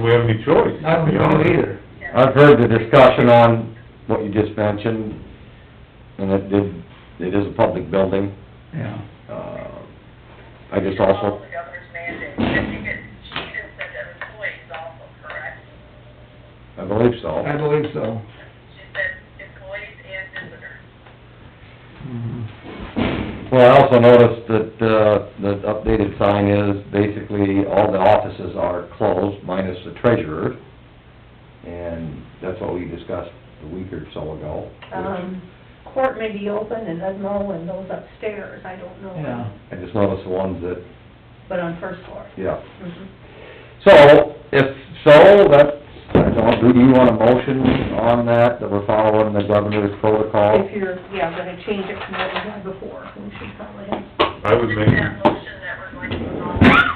we have any choice. I don't know either. I've heard the discussion on what you just mentioned, and it did, it is a public building. Yeah. Uh, I just also, The governor's mandate, I think it, she even said that employees also, correct? I believe so. I believe so. She said employees and visitors. Mhm. Well, I also noticed that, uh, the updated sign is basically all the offices are closed minus the treasurer. And that's what we discussed a week or so ago. Um, court may be open and Edmo and those upstairs, I don't Yeah. know, I just noticed the ones that, but on first floor. yeah. Mhm. So, if so, that's, I don't, do you want a motion on that, that we're following the governor's protocol? If you're, yeah, gonna change it from what we had before, we should probably have. I would make, Just that motion that we're going to follow the governor's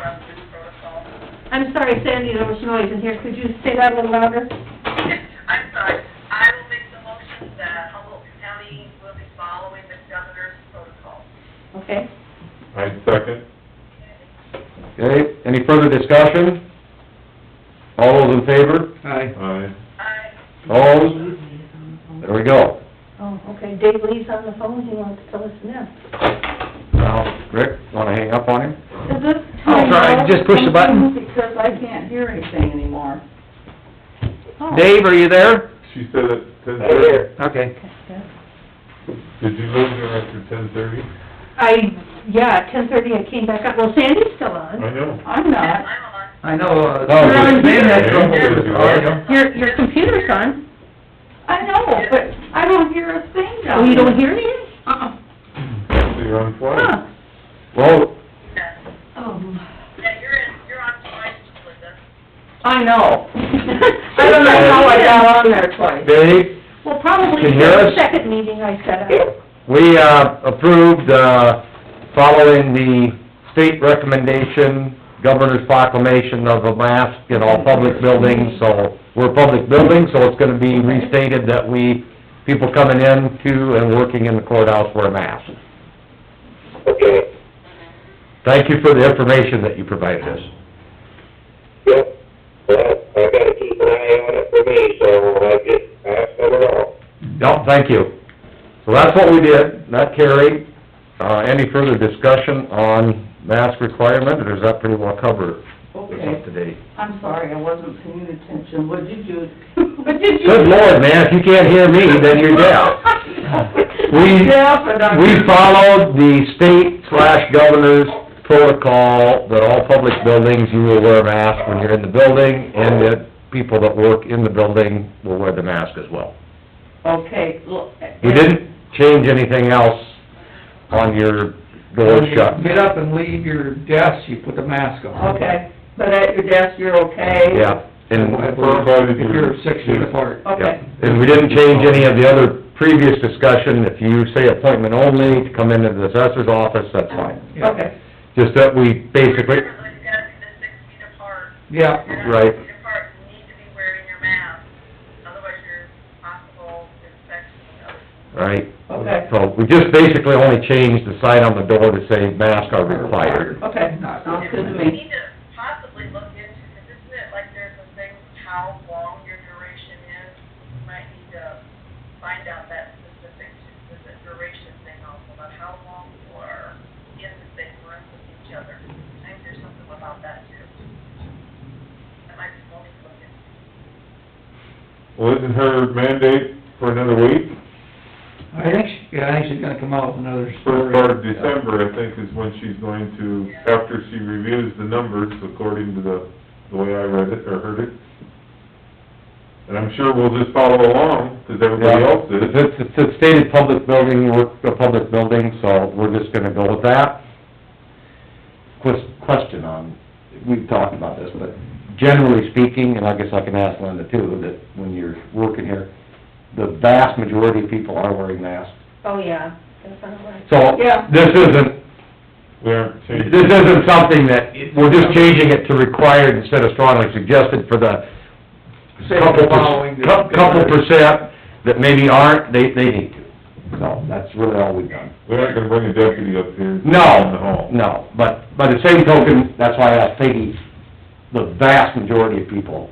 protocol. I'm sorry, Sandy, there was noise in here, could you say that a little louder? I'm sorry, I will make the motion that Humboldt County will be following the governor's protocol. Okay, I second. Okay, any further discussion? All those in favor? Aye. Aye. I, Opposed? There we go. oh, okay, Dave Lee's on the phone, he wants to tell us now. Now, Rick, wanna hang up on him? Is this Oh, time sorry, out? just push the button. Because I can't hear anything anymore. Oh, Dave, are you there? She said at ten thirty. Okay. Did you leave her after ten thirty? I, yeah, ten thirty, I came back up, well, Sandy's still on. I know. I'm yes, not. I'm on. I know, uh, No, Sam just- had trouble with the audio. Your, your computer's on, I know, Oh, but I don't hear a thing down oh, you don't hear anything? Uh-uh. So you're on Huh. flight. Well, Yes. Oh. Yeah, you're in, you're on time, Linda. I know. I don't know how I got on there twice. Dave, Well, probably Can you hear the us? second meeting I set up. we, uh, approved, uh, following the state recommendation, governor's proclamation of a mask in all public buildings, so we're a public building, so it's gonna be restated that we, people coming in to and working in the courthouse wear masks. Okay, Thank you for the information that you provided us. yep, well, I gotta keep an eye on it for me, so I just, I have to know. No, thank you. So that's what we did, that carried. Uh, any further discussion on mask requirement, or does that pretty well cover what's Okay, up to date? I'm sorry, I wasn't paying attention. What did you, what did you? Good lord, man, if you can't hear me, then you're deaf. We, Yeah, but I- we followed the state slash governor's protocol that all public buildings, you will wear a mask when you're in the building, and that people that work in the building will wear the mask as well. Okay, look. We didn't change anything else on your door When you shut. Get up and leave your desk, you put the mask on. Okay, but at your desk, you're okay? Yeah, and, If you're six feet apart. yeah, Okay. and we didn't change any of the other previous discussion, if you say appointment only, to come into the assessor's office, that's fine. Yeah. Okay, Just that we basically, Remember, you gotta be the six feet apart. Yeah. If you're not Right. six feet apart, you need to be wearing your mask, otherwise you're possible infection of right, okay, so we just basically only changed the sign on the door to say masks are required. okay. Not- Sounds good to We me. need to possibly look into, because isn't it like there's a thing, how long your duration is? We might need to find out that specific, there's a duration thing also, about how long you are in the same room with each other. I think there's something about that too. That might be something to look into. Well, isn't her mandate for another week? I think, she- yeah, I think she's gonna come out with another story. First part of December, I think, is when she's going to, after she reviews the numbers, according to the, the way I read it or heard it. And I'm sure we'll just follow along, 'cause everybody else is. It's, it's a stated public building, we're a public building, so we're just gonna go with that. Ques- Question on, we've talked about this, but generally speaking, and I guess I can ask Linda too, that when you're working here, the vast majority of people are wearing masks. Oh, yeah, that's not right. So, Yeah. this isn't, We aren't changing. this isn't something that, we're just changing it to required instead of strongly suggested for the Say couple, following the- per- couple percent that maybe aren't, they, they need to. So, that's really all we've done. We aren't gonna bring a deputy up here. In the No, hall. no, but by the same token, that's why I asked Peggy, the vast majority of people